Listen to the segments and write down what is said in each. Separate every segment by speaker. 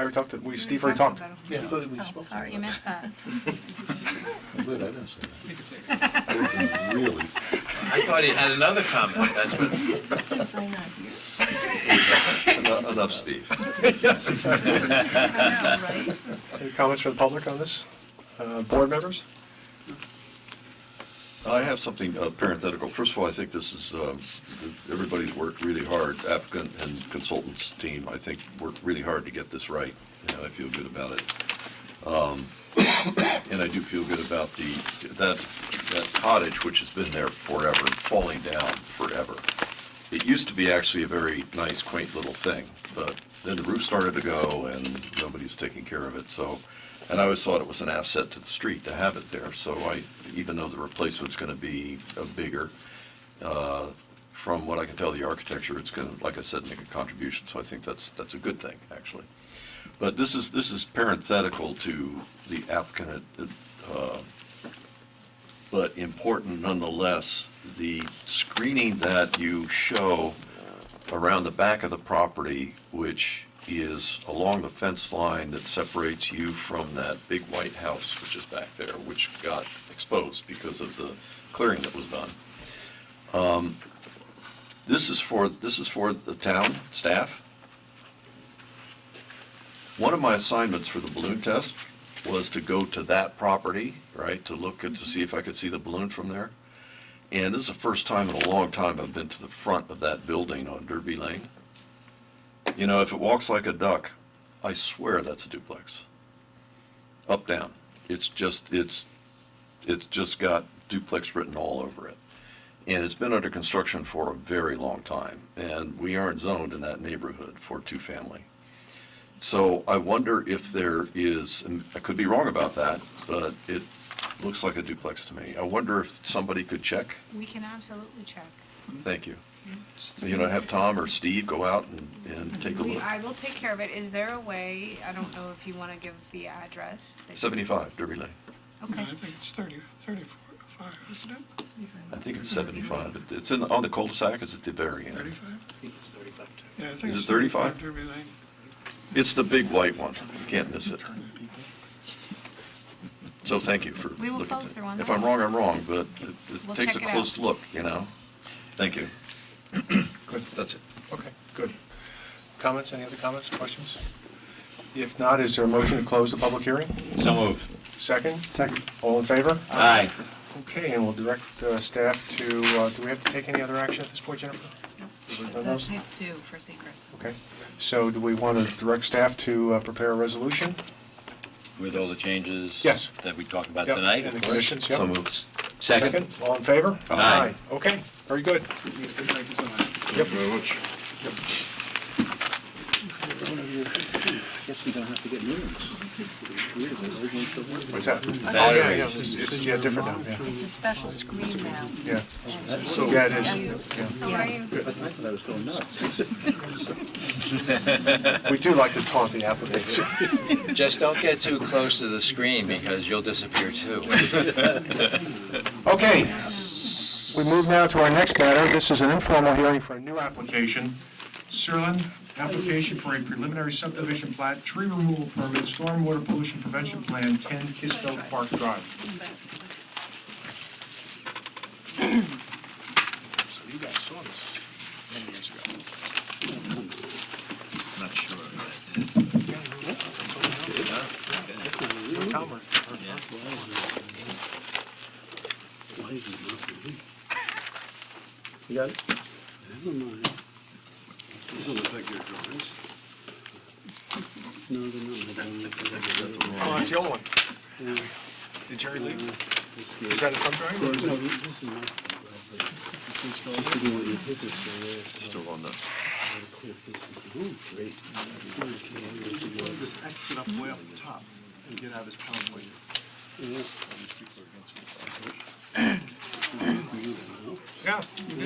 Speaker 1: I already talked to, we, Steve already talked.
Speaker 2: Yeah, I thought we
Speaker 3: Oh,
Speaker 2: spoke.
Speaker 3: sorry, you
Speaker 2: about
Speaker 3: missed that.
Speaker 2: it. I'm glad I didn't say that. Really?
Speaker 4: I thought he had another comment, that's what.
Speaker 3: Was I not here?
Speaker 4: Enough, enough, Steve.
Speaker 3: I know, right?
Speaker 1: Any comments from the public on this? Uh, Board members?
Speaker 5: I have something uh, parenthetical. First of all, I think this is, um, everybody's worked really hard, applicant and consultants team, I think, worked really hard to get this right. You know, I feel good about it. Um, And I do feel good about the, that, that cottage, which has been there forever, and falling down forever. It used to be actually a very nice, quaint little thing, but then the roof started to go and nobody was taking care of it, so. And I always thought it was an asset to the street to have it there, so I, even though the replacement's gonna be uh, bigger, uh, from what I can tell, the architecture, it's gonna, like I said, make a contribution, so I think that's, that's a good thing, actually. But this is, this is parenthetical to the applicant, uh, but important nonetheless. The screening that you show around the back of the property, which is along the fence line that separates you from that big white house, which is back there, which got exposed because of the clearing that was done. Um, This is for, this is for the town staff. One of my assignments for the balloon test was to go to that property, right, to look and to see if I could see the balloon from there. And this is the first time in a long time I've been to the front of that building on Derby Lane. You know, if it walks like a duck, I swear that's a duplex. Up, down. It's just, it's, it's just got duplex written all over it. And it's been under construction for a very long time. And we aren't zoned in that neighborhood for two-family. So I wonder if there is, and I could be wrong about that, but it looks like a duplex to me. I wonder if somebody could check.
Speaker 3: We can absolutely check.
Speaker 5: Thank you. You know, have Tom or Steve go out and, and take a
Speaker 3: We,
Speaker 5: look.
Speaker 3: I will take care of it. Is there a way, I don't know if you want to give the address? that you-
Speaker 5: Seventy-five Derby Lane.
Speaker 3: Okay.
Speaker 6: I think it's 30, 35, isn't it?
Speaker 5: I think it's seventy-five. It- It's in, on the cul-de-sac, it's at the very end.
Speaker 6: 35? Yeah, I think
Speaker 5: Is
Speaker 6: it's
Speaker 5: it 35?
Speaker 6: 35 Derby Lane.
Speaker 5: It's the big white one. You can't miss it. So thank you for looking.
Speaker 3: We will
Speaker 5: at
Speaker 3: follow
Speaker 5: that.
Speaker 3: through on
Speaker 5: If
Speaker 3: that.
Speaker 5: I'm wrong, I'm wrong, but it-
Speaker 3: We'll
Speaker 5: it takes a
Speaker 3: check it out.
Speaker 5: close look, you know? Thank you.
Speaker 1: Good.
Speaker 5: That's it.
Speaker 1: Okay, good. Comments, any other comments, questions? If not, is there a motion to close the public hearing?
Speaker 4: So move.
Speaker 1: Second?
Speaker 2: Second.
Speaker 1: All in favor?
Speaker 4: Aye.
Speaker 1: Okay, and we'll direct uh, staff to, uh, do we have to take any other action at this point, Jennifer? Have we done
Speaker 7: It's
Speaker 1: those?
Speaker 7: a type two for secrets.
Speaker 1: Okay, so do we want to direct staff to uh, prepare a resolution?
Speaker 4: With all the changes?
Speaker 1: Yes.
Speaker 4: That we talked about
Speaker 1: Yep,
Speaker 4: tonight?
Speaker 1: And the conditions, yep.
Speaker 5: So moved.
Speaker 4: Second?
Speaker 1: All in favor?
Speaker 4: Aye.
Speaker 1: Okay, very good.
Speaker 5: Thank you very much.
Speaker 2: Guess we don't have to get new ones.
Speaker 1: What's that? Oh, yeah, yeah,
Speaker 4: Batteries.
Speaker 1: it's, it's, yeah, different now, yeah,
Speaker 7: It's a special screen now.
Speaker 1: yeah.
Speaker 7: and-
Speaker 5: So-
Speaker 1: Yeah, it is.
Speaker 7: Yes.
Speaker 2: I thought I was going nuts.
Speaker 1: We do like to taunt the applicants.
Speaker 4: Just don't get too close to the screen because you'll disappear too.
Speaker 1: Okay, we move now to our next matter. This is an informal hearing for a new application. Serlin, application for a preliminary subdivision plat, tree removal permit, stormwater pollution prevention plan, 10 Kisco Park Drive. So you guys saw this many years ago.
Speaker 4: Not sure.
Speaker 2: You got it? Never mind. These are the bigger drawings. No, they're not my drawings.
Speaker 1: Oh, that's the old one.
Speaker 2: Yeah,
Speaker 1: Did Jerry
Speaker 2: uh,
Speaker 1: leave?
Speaker 2: it's the-
Speaker 1: Is that a thumb drive? or is
Speaker 2: No,
Speaker 1: it-
Speaker 2: this is my- This is what you- this is the-
Speaker 5: Still on the.
Speaker 2: Just exit up way up the top and get out of this pound way.
Speaker 1: Yeah, you did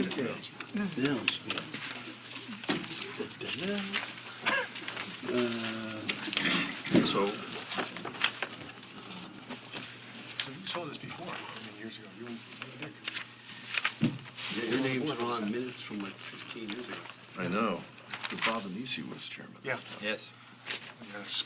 Speaker 1: it.
Speaker 2: Now it's good. Da-da-da. Uh,
Speaker 1: So
Speaker 5: So,
Speaker 1: you saw this before, I mean, years ago. You were- you were Dick.
Speaker 2: yeah, Your name's on minutes from like 15 years ago.
Speaker 5: I know, Bob Anisi was chairman.
Speaker 1: Yeah.
Speaker 4: Yes.
Speaker 1: Yes.